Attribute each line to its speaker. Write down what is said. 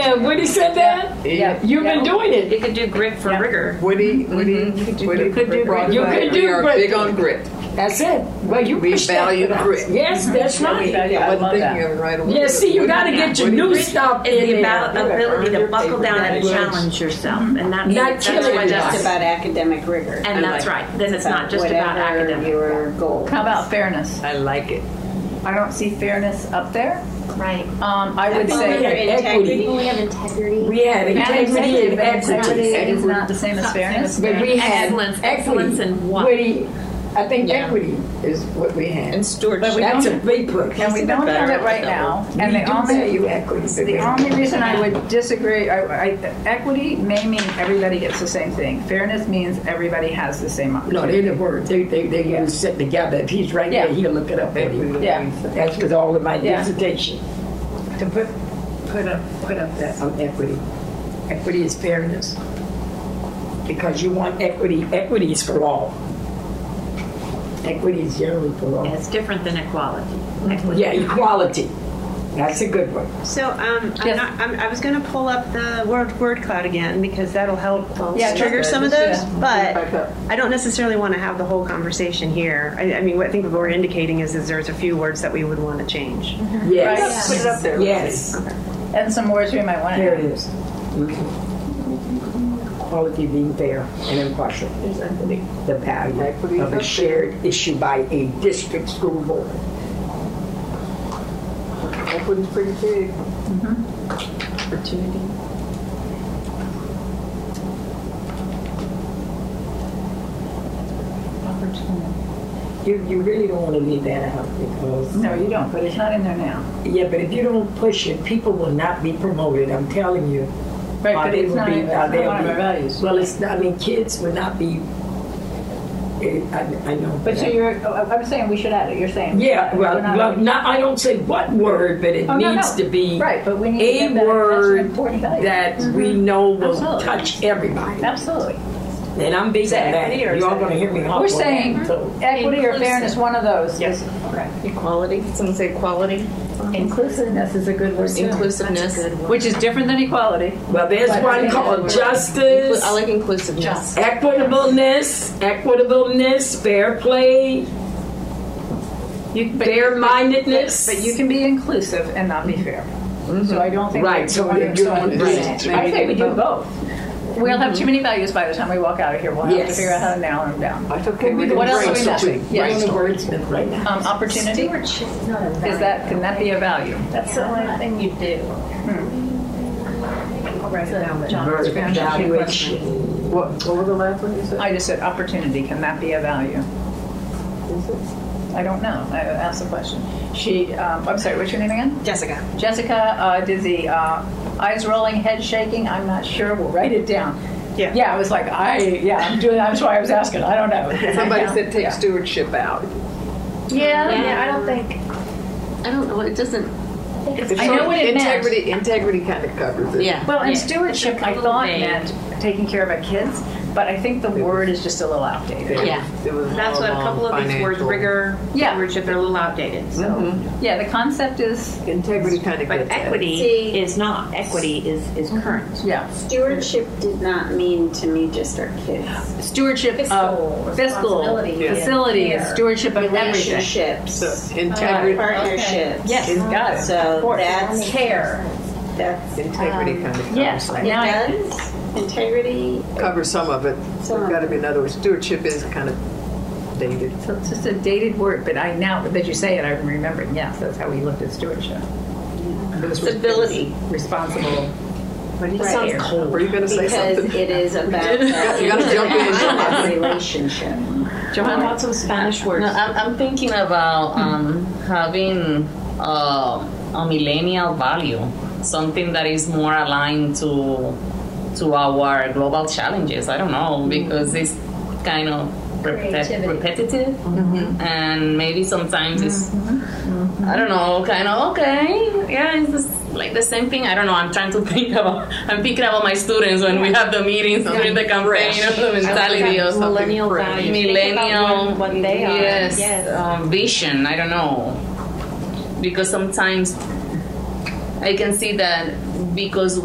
Speaker 1: and Woody said that?
Speaker 2: Yeah.
Speaker 1: You've been doing it.
Speaker 2: You could do grit for rigor.
Speaker 3: Woody, Woody, Woody
Speaker 2: could do
Speaker 3: brought
Speaker 2: grit.
Speaker 3: it
Speaker 2: You
Speaker 3: up.
Speaker 1: could
Speaker 3: We
Speaker 1: do
Speaker 3: are
Speaker 1: grit.
Speaker 3: big on grit.
Speaker 1: That's it. Well, you
Speaker 3: We
Speaker 1: pushed that
Speaker 3: value
Speaker 1: for us.
Speaker 3: grit.
Speaker 1: Yes, that's
Speaker 4: We
Speaker 1: right.
Speaker 4: value- I
Speaker 3: I wasn't
Speaker 4: love
Speaker 3: thinking
Speaker 4: that.
Speaker 3: of it right away.
Speaker 1: Yeah, see, you gotta get your new stuff
Speaker 2: It's the
Speaker 1: in
Speaker 2: about
Speaker 1: there.
Speaker 2: ability to buckle down and
Speaker 1: Yes.
Speaker 2: challenge yourself,
Speaker 4: Mm-hmm.
Speaker 2: and that's
Speaker 1: Not
Speaker 2: that's
Speaker 1: killing
Speaker 2: what
Speaker 1: yourself.
Speaker 2: that's
Speaker 4: Just about academic rigor.
Speaker 2: And that's right. Then it's not just about
Speaker 4: Whatever
Speaker 2: academic.
Speaker 4: Your goal.
Speaker 5: How about fairness?
Speaker 3: I like it.
Speaker 5: I don't see fairness up there.
Speaker 6: Right.
Speaker 5: Um, I would
Speaker 1: think
Speaker 5: say.
Speaker 1: we had
Speaker 4: integrity.
Speaker 6: People, we have integrity.
Speaker 1: We had integrity and equity.
Speaker 5: Is not the same as fairness.
Speaker 1: But we had
Speaker 2: Excellence.
Speaker 1: equity.
Speaker 2: Excellence in what?
Speaker 1: Woody, I think equity is what we
Speaker 3: And
Speaker 1: had.
Speaker 3: stewardship.
Speaker 5: But we
Speaker 1: That's a
Speaker 5: don't-
Speaker 1: big push.
Speaker 5: And we don't have it right now. And
Speaker 1: We
Speaker 5: the
Speaker 1: do
Speaker 5: only,
Speaker 1: value equity. but we
Speaker 5: the
Speaker 1: don't.
Speaker 5: only reason I would disagree, I, I, equity may mean everybody gets the same thing. Fairness means everybody has the same
Speaker 1: No,
Speaker 5: opportunity.
Speaker 1: they didn't work. They, they, they didn't sit together. If he's right there,
Speaker 5: Yeah.
Speaker 1: he'll look it up for you.
Speaker 5: Yeah.
Speaker 1: That's with all of my
Speaker 5: Yeah.
Speaker 1: dissertation
Speaker 7: To put, put up, put up that,
Speaker 1: on equity. Equity is fairness. Because you want equity, equity is for all. Equity is generally for all.
Speaker 2: It's different than equality. Equity.
Speaker 1: Yeah, equality. That's a good one.
Speaker 8: So um, I'm
Speaker 5: Yes.
Speaker 8: not, I'm, I was going to pull up the word word cloud again because that'll help
Speaker 5: Yeah,
Speaker 8: trigger
Speaker 5: just-
Speaker 8: some of those.
Speaker 5: just, yeah.
Speaker 8: But I don't necessarily want to have the whole conversation here. I, I mean, what I think what we're indicating is, is there's a few words that we would want to change.
Speaker 1: Mm-hmm. Yes.
Speaker 3: Put it up there.
Speaker 1: Yes.
Speaker 5: And some words we might want
Speaker 1: There it
Speaker 5: to.
Speaker 1: is. Quality being fair and impartial. The
Speaker 3: Equity
Speaker 1: value of
Speaker 3: is up
Speaker 1: a shared issue by a district school board.
Speaker 3: Equity's pretty big.
Speaker 1: You, you really don't want to leave that out because.
Speaker 5: No, you don't, but it's not in there now.
Speaker 1: Yeah, but if you don't push it, people will not be promoted, I'm telling you.
Speaker 5: Right,
Speaker 1: Or
Speaker 5: but
Speaker 1: they
Speaker 5: it's
Speaker 1: will
Speaker 5: not,
Speaker 1: be-
Speaker 5: in- it's
Speaker 1: or
Speaker 5: not
Speaker 1: they'll
Speaker 5: one of
Speaker 1: be-
Speaker 5: our values.
Speaker 1: Well, it's, not- I mean, kids will not be, eh, I, I know.
Speaker 5: But so
Speaker 1: that.
Speaker 5: you're, oh, I'm saying we should add it, you're saying.
Speaker 1: Yeah, well,
Speaker 5: We're not-
Speaker 1: well, not, I don't say what word, but it
Speaker 5: Oh, no,
Speaker 1: needs
Speaker 5: no.
Speaker 1: to be
Speaker 5: Right, but we need
Speaker 1: a
Speaker 5: to get that, that's an
Speaker 1: word
Speaker 5: important value.
Speaker 1: that we know will
Speaker 5: Absolutely.
Speaker 1: touch everybody.
Speaker 5: Absolutely.
Speaker 1: And I'm big on that.
Speaker 3: equity or is
Speaker 1: You're all
Speaker 3: that-
Speaker 1: gonna hear me honk on
Speaker 5: We're
Speaker 1: that,
Speaker 5: saying
Speaker 1: so-
Speaker 5: equity or fairness, one of those.
Speaker 3: Yes.
Speaker 4: Equality. Someone say equality.
Speaker 5: Inclusiveness is a good word too.
Speaker 4: Inclusiveness, which is different than equality.
Speaker 1: Well, there's
Speaker 5: But I
Speaker 1: one
Speaker 5: think
Speaker 1: called
Speaker 5: that's where-
Speaker 1: justice.
Speaker 4: I like inclusiveness.
Speaker 1: Equitableness, equitableness, fair play,
Speaker 5: You- but-
Speaker 1: fair mindedness.
Speaker 5: But you can be inclusive and not be fair. So I don't think.
Speaker 1: Right,
Speaker 5: we-
Speaker 1: so
Speaker 5: I
Speaker 1: you're doing
Speaker 5: I
Speaker 1: right.
Speaker 5: think we do both. We'll have too many values by the time we walk out of here. We'll have to
Speaker 1: Yes.
Speaker 5: figure out how to narrow them down.
Speaker 3: That's okay. We
Speaker 5: What
Speaker 3: didn't
Speaker 5: else are we
Speaker 3: brainstorm.
Speaker 5: missing?
Speaker 1: We're
Speaker 5: Yes.
Speaker 1: on a wordsmith right now.
Speaker 5: Um, opportunity, is
Speaker 6: Stewardship's not a value.
Speaker 5: that, can that be a value?
Speaker 6: That's the only thing you do.
Speaker 1: Verb, evaluation.
Speaker 3: What, what was the last one you said?
Speaker 5: I just said opportunity, can that be a value? I don't know, I asked the question. She, um, I'm sorry, what's your name again?
Speaker 8: Jessica.
Speaker 5: Jessica uh, did the uh, eyes rolling, head shaking. I'm not sure. We'll write it down.
Speaker 8: Yeah.
Speaker 5: Yeah, I was like, I yeah, I'm doing. That's why I was asking. I don't know.
Speaker 3: Somebody
Speaker 5: Yeah.
Speaker 3: said take
Speaker 5: Yeah.
Speaker 3: stewardship out.
Speaker 6: Yeah, yeah, I don't think.
Speaker 4: I don't know. It doesn't.
Speaker 5: I know what it meant.
Speaker 3: Integrity, integrity kind of covers it.
Speaker 4: Yeah.
Speaker 5: Well, and stewardship, I thought meant taking care of our kids, but I think the word is just a little outdated.
Speaker 4: Yeah.
Speaker 3: It was
Speaker 2: That's what a
Speaker 3: all
Speaker 2: couple of these words,
Speaker 3: financial-
Speaker 2: rigor,
Speaker 5: Yeah.
Speaker 2: stewardship, they're a little outdated. So,
Speaker 4: Mm-hmm.
Speaker 5: Yeah, the concept is
Speaker 3: Integrity kind of
Speaker 2: but
Speaker 3: gets at it.
Speaker 2: equity
Speaker 4: See- mm-hmm.
Speaker 2: is not. Equity is is current.
Speaker 5: yeah
Speaker 4: Stewardship did not mean to me just our kids.
Speaker 5: stewardship
Speaker 6: Fiscal
Speaker 5: of fiscal
Speaker 6: responsibility.
Speaker 3: Yeah.
Speaker 5: facilities,
Speaker 6: Care.
Speaker 5: stewardship of everything.
Speaker 4: Relationships,
Speaker 3: So integrity,
Speaker 4: Uh, partnerships.
Speaker 5: Yes, got it. Of
Speaker 4: So
Speaker 5: course.
Speaker 4: that's
Speaker 5: care.
Speaker 4: that's it
Speaker 3: integrity kind of
Speaker 5: Yes,
Speaker 3: covers it.
Speaker 5: now I-
Speaker 4: does integrity.
Speaker 3: Cover some of it. There's
Speaker 4: Some of
Speaker 3: got to be another word. Stewardship is kind of dated.
Speaker 5: So it's just a dated word, but I now that you say it, I'm remembering. Yes, that's how we looked at stewardship.
Speaker 4: Stability.
Speaker 5: Responsible.
Speaker 4: Right.
Speaker 5: Sounds
Speaker 3: Were you going to say
Speaker 4: Because
Speaker 3: something?
Speaker 4: it is about
Speaker 3: You gotta jump in.
Speaker 4: that relationship.
Speaker 2: Johan, lots of Spanish words.
Speaker 9: No, I'm, I'm thinking about um, having uh, a millennial value, something that is more aligned to to our global challenges. I don't know because it's kind of repet-
Speaker 6: Creativity.
Speaker 9: repetitive, and maybe sometimes it's I don't know, kind of okay, yeah, it's just like the same thing. I don't know. I'm trying to think about. I'm thinking about my students when we have the meetings during the campaign, you know, the mentality or something
Speaker 2: millennial values. Think about
Speaker 9: millennial
Speaker 2: what, what they are.
Speaker 9: yes,
Speaker 2: yes.
Speaker 9: Um, vision i don't know because sometimes i can see that because